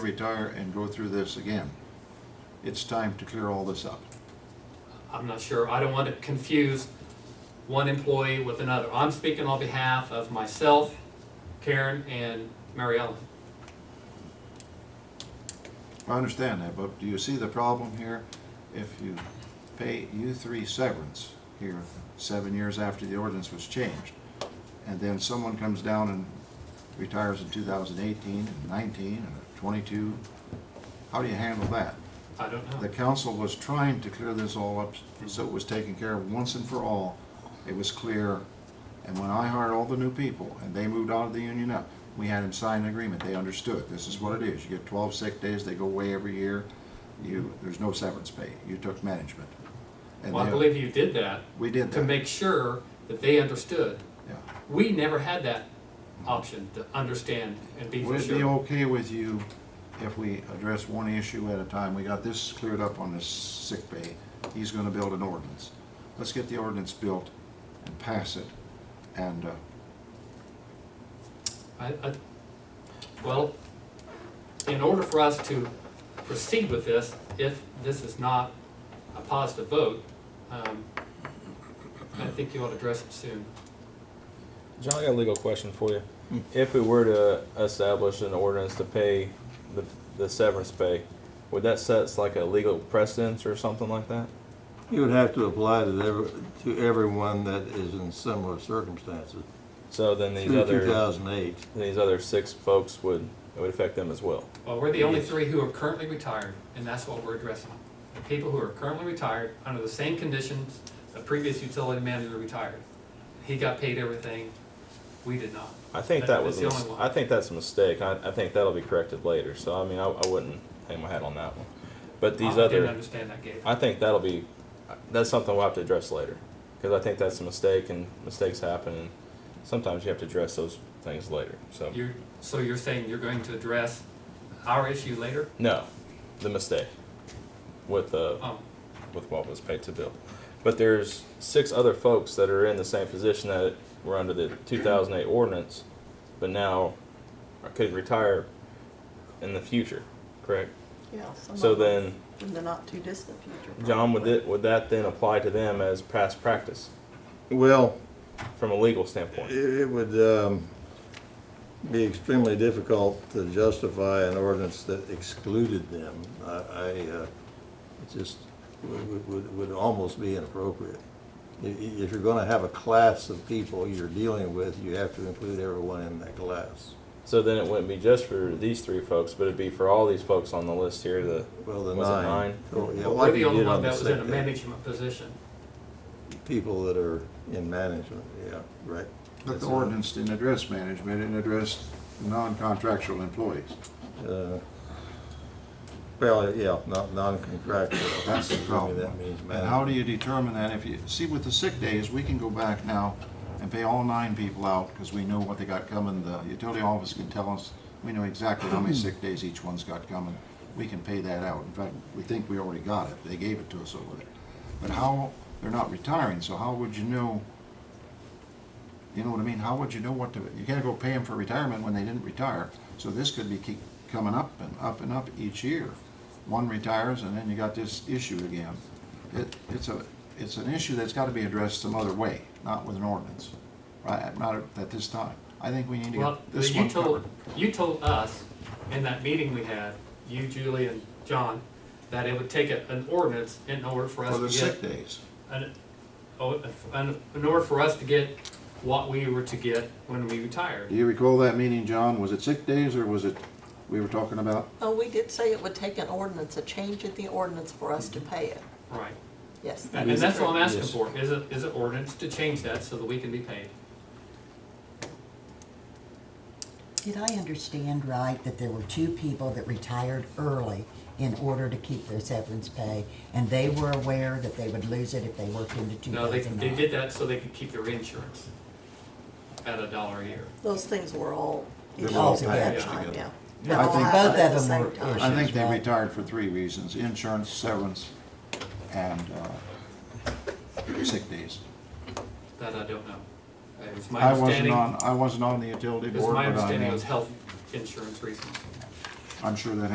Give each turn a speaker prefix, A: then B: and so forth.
A: retire and go through this again. It's time to clear all this up.
B: I'm not sure, I don't want to confuse one employee with another. I'm speaking on behalf of myself, Karen, and Mary Ellen.
A: I understand that, but do you see the problem here? If you pay you three severance here, seven years after the ordinance was changed, and then someone comes down and retires in 2018 and 19 and 22, how do you handle that?
B: I don't
A: The
B: know.
A: council was trying to clear this all up, so it was taken care of once and for all. It was clear, and when I hired all the new people, and they moved out of the union up, we had them sign an agreement, they understood, this is what it is, you get twelve sick days, they go away every year, you, there's no severance pay, you took management. And
B: Well, I
A: they-
B: believe you did that
A: We did
B: to
A: that,
B: make sure that they understood.
A: yeah.
B: We never had that option to understand and be for
A: Would it be
B: sure.
A: okay with you if we address one issue at a time? We got this cleared up on this sick bay. He's gonna build an ordinance. Let's get the ordinance built and pass it. And, uh,
B: I, I, well, in order for us to proceed with this, if this is not a positive vote, um, I think you ought to address it soon.
C: John, I got a legal question for you.
B: Hmm.
C: If we were to establish an ordinance to pay the, the severance pay, would that set like a legal precedence or something like that?
D: You would have to apply to every, to everyone that is in similar circumstances.
C: So then these
D: Through two
C: other,
D: thousand eight,
C: these other six folks would, it would affect them as well.
B: Well, we're the only
C: Yes.
B: three who are currently retired, and that's what we're addressing. The people who are currently retired, under the same conditions the previous utility manager retired. He got paid everything, we did not.
C: I think
B: That-
C: that was, a
B: that's the
C: mis-
B: only one.
C: I think that's a mistake. I, I think that'll be corrected later. So I mean, I, I wouldn't hang my hat on that one. But these
B: I didn't
C: other,
B: understand that, Gabe.
C: I think that'll be, that's something we'll have to address later. Because I think that's a mistake and mistakes happen and sometimes you have to address those things later, so.
B: You're, so you're saying you're going to address our issue later?
C: No, the mistake with uh,
B: Oh,
C: with what was paid to Bill. But there's six other folks that are in the same position that were under the 2008 ordinance, but now could retire in the future, correct?
E: Yeah. some
C: So
E: of them
C: then,
E: In the not too distant future.
C: John, would
E: probably.
C: it would that then apply to them as past practice
D: well,
C: from a legal
D: it,
C: standpoint?
D: it would, um, be extremely difficult to justify an ordinance that excluded them. I, I, uh, it just would, would- would, would almost be inappropriate. I- i- If you're gonna have a class of people you're dealing with, you have to include everyone in that class.
C: So then it wouldn't be just for these three folks, but it'd be for all these folks on the list here. The
D: Well, the
C: Was it
D: nine.
C: nine?
D: Oh, yeah,
B: we're
D: like
B: the
D: you
B: only
D: did
B: one
D: on the
B: that was in a
D: sick day.
B: management position.
D: people that are in management, yeah, right.
A: but
D: That's
A: the
D: a-
A: ordinance didn't address management, it addressed non-contractual employees.
D: uh, Well, yeah, not non-contractual.
A: That's the
D: Maybe
A: problem.
D: That means
A: And how
D: management.
A: do you determine that if you, see with the sick days, we can go back now and pay all nine people out because we know what they got coming. The utility office can tell us, we know exactly how many sick days each one's got coming. We can pay that out. In fact, we think we already got it. They gave it to us over there. But how, they're not retiring, so how would you know? You know what I mean? How would you know what to, you can't go pay them for retirement when they didn't retire. So this could be keep coming up and up and up each year. One retires and then you got this issue again. It, it's a, it's an issue that's gotta be addressed some other way, not with an ordinance, right? Not at this time. I think we need to
B: Well,
A: get this
B: you
A: one
B: told,
A: covered.
B: you told us in that meeting we had, you, Julie, and John, that it would take a- an ordinance in order for us
A: For
B: to
A: the sick
B: get,
A: days.
B: an- oh, an- in order for us to get what we were to get when we
A: Do
B: retired.
A: you recall that meeting, John? Was it sick days or was it, we were talking about?
E: Oh, we did say it would take an ordinance, a change in the ordinance for us to pay it.
B: Right.
E: Yes. that
B: And and
E: is
B: that's what I'm
E: correct.
B: asking
D: Yes.
B: for, is it, is it ordinance to change that so that we can be paid?
F: Did I understand right that there were two people that retired early in order to keep their severance pay, and they were aware that they would lose it if they worked into two
B: No, they,
F: thousand
B: they
F: nine?
B: did that so they could keep their insurance at a dollar a year.
E: Those things were all.
A: They were
E: issued
F: all
E: at that
F: packaged
E: time,
A: together.
E: Yeah.
A: Yeah,
E: They
A: I
E: all
A: think-
E: happened
F: Both
E: at
F: of
E: the
F: them
E: same
F: were
E: time.
A: I
F: issued.
A: think they
F: Right.
A: retired for three reasons, insurance, severance, and uh, sick days.
B: That I don't know. It was my
A: I wasn't
B: understanding,
A: on, I wasn't on the utility
B: it was
A: board,
B: my
A: but I
B: understanding it
A: am,
B: was health insurance reasons.
A: I'm sure that